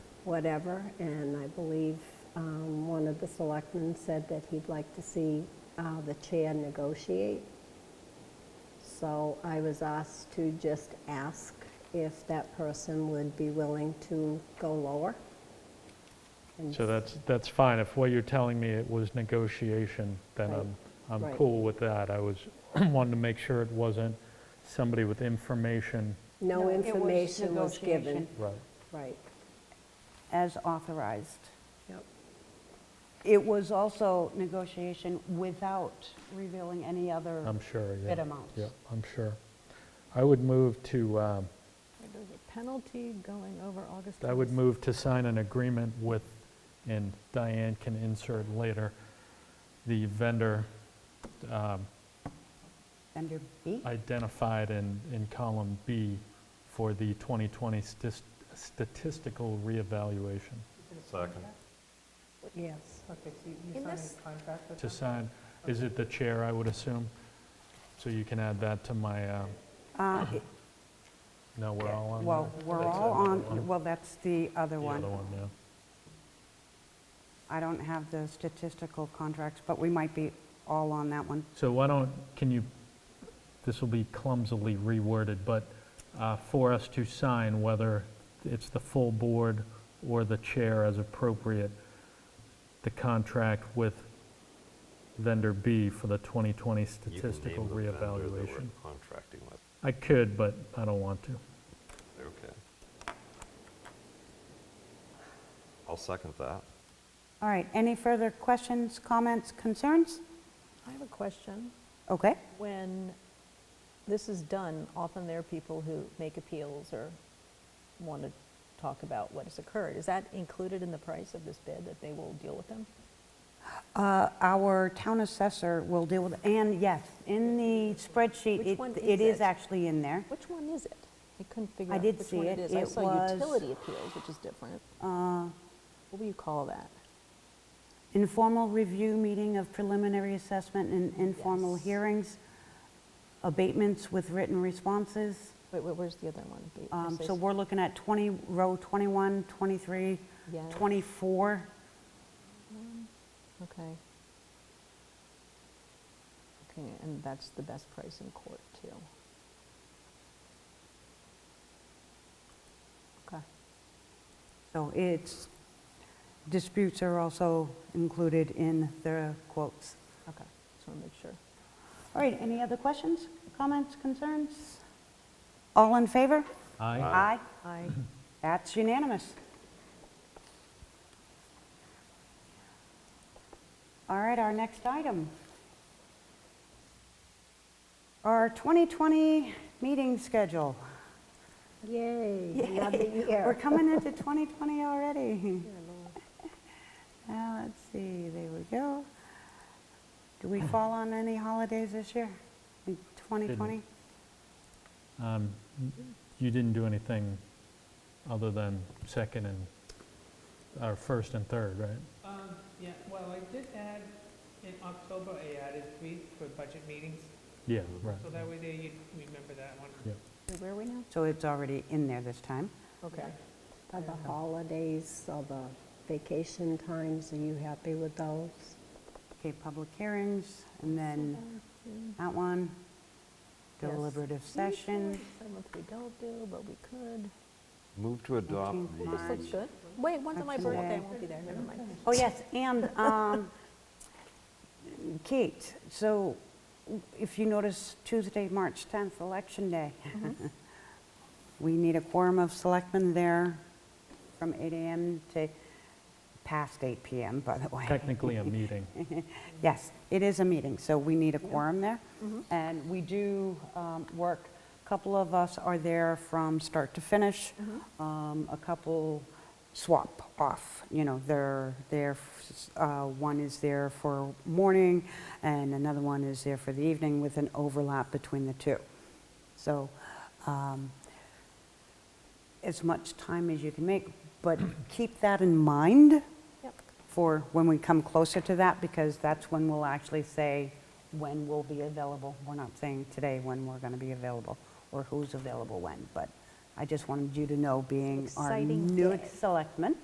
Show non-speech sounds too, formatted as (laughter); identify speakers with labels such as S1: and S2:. S1: whatever, and I believe um, one of the selectmen said that he'd like to see uh, the chair negotiate. So I was asked to just ask if that person would be willing to go lower. And
S2: So that's, that's fine. If what you're telling me it was negotiation, then
S1: Right,
S2: I'm, I'm
S1: right.
S2: cool with that. I was, (clears throat) wanted to make sure it wasn't somebody with information.
S1: No
S3: No, it was
S1: information was given.
S3: negotiation.
S2: Right.
S1: Right,
S3: as authorized.
S1: yep,
S3: It was also negotiation without revealing any other.
S2: I'm sure, yeah.
S3: Bid amounts.
S2: Yeah, I'm sure. I would move to, um,
S4: There's a penalty going over August.
S2: I would
S4: 26th.
S2: move to sign an agreement with, and Diane can insert later, the vendor um,
S3: Vendor B?
S2: identified in, in column B for the 2020 stis- statistical reevaluation.
S5: Second.
S1: yes.
S6: Okay, so you- you
S7: In
S6: signed
S7: this-
S6: a contract with
S2: To
S6: them?
S2: sign, is it the chair, I would assume? So you can add that to my, uh,
S3: Uh,
S2: no, we're all on
S3: Well,
S2: that?
S3: we're
S2: That's
S3: all
S2: another
S3: on,
S2: one.
S3: well, that's the other
S2: The other
S3: one.
S2: one, yeah.
S3: I don't have the statistical contracts, but we might be all on that one.
S2: So why don't, can you, this will be clumsily reworded, but uh, for us to sign, whether it's the full board or the chair as appropriate, the contract with vendor B for the 2020
S5: You can name
S2: statistical
S5: the vendor that we're
S2: reevaluation.
S5: Contracting with,
S2: I could, but I don't want to.
S5: okay. I'll second that.
S3: All right, any further questions, comments, concerns?
S4: I have a question.
S3: Okay,
S7: When this is done, often there are people who make appeals or want to talk about what has occurred. Is that included in the price of this bid, that they will deal with them?
S3: Uh, our town assessor will deal with, and yes, in the spreadsheet,
S7: Which
S3: it-
S7: one
S3: it
S7: is
S3: is
S7: it?
S3: actually in there.
S7: Which one is it? I couldn't figure
S3: I
S7: out
S3: did
S7: which
S3: see
S7: one
S3: it.
S7: it is. I
S3: It
S7: saw
S3: was-
S7: utility appeals, which is different.
S3: Uh,
S7: What do you call that?
S3: Informal review meeting of preliminary assessment and informal
S7: Yes.
S3: hearings, abatements with written responses.
S7: Wait, wait, where's the other one? The- it
S3: Um,
S7: says-
S3: So we're looking at 20, row 21, 23,
S7: Yeah.
S3: 24.
S7: Okay. Okay, and that's the best price in court, too. Okay.
S3: So it's, disputes are also included in the quotes.
S7: Okay, just want to make sure.
S3: All right, any other questions, comments, concerns? All in favor?
S2: Aye.
S3: Aye.
S7: I
S3: That's unanimous. All right, our next item. Our 2020 meeting schedule.
S1: Yay, another year.
S3: (laughs) We're coming into 2020 already. Now, let's see, there we go. Do we fall on any holidays this year in 2020?
S2: Um, You didn't do anything other than second and, or first and third, right?
S6: Um, yeah, well, I did add, in October, I added three for budget meetings,
S2: Yeah, right.
S6: so that way there you'd remember that one.
S2: Yeah.
S7: Where are we now?
S3: So it's already in there this time.
S7: Okay.
S1: Are the holidays, are the vacation times, are you happy with those?
S3: Okay, public hearings, and then that one,
S7: Yes.
S3: deliberative session.
S7: Seventh we don't do, but we could.
S5: Move to adopt
S3: Fourteenth,
S7: This
S5: the
S7: looks good. Wait, one's on my
S3: Actually-
S7: birthday, I won't be there, never mind.
S3: Oh, yes, and um, Kate, so if you notice, Tuesday, March 10th, Election Day.
S7: Mm-hmm.
S3: We need a quorum of selectmen there from 8 AM to past 8 PM, by the way.
S2: Technically a meeting.
S3: (laughs) Yes, it is a meeting, so we need a quorum there. And we do um, work, a couple of us are there from start to finish. Um, A couple swap off, you know, they're there, f- uh, one is there for morning and another one is there for the evening with an overlap between the two. So um, as much time as you can make, but (clears throat) keep that in mind
S7: Yep.
S3: for when we come closer to that, because that's when we'll actually say when we'll be available. We're not saying today when we're going to be available, or who's available when, but I just wanted you to know, being our
S7: Exciting
S3: new
S7: day.
S3: selectman,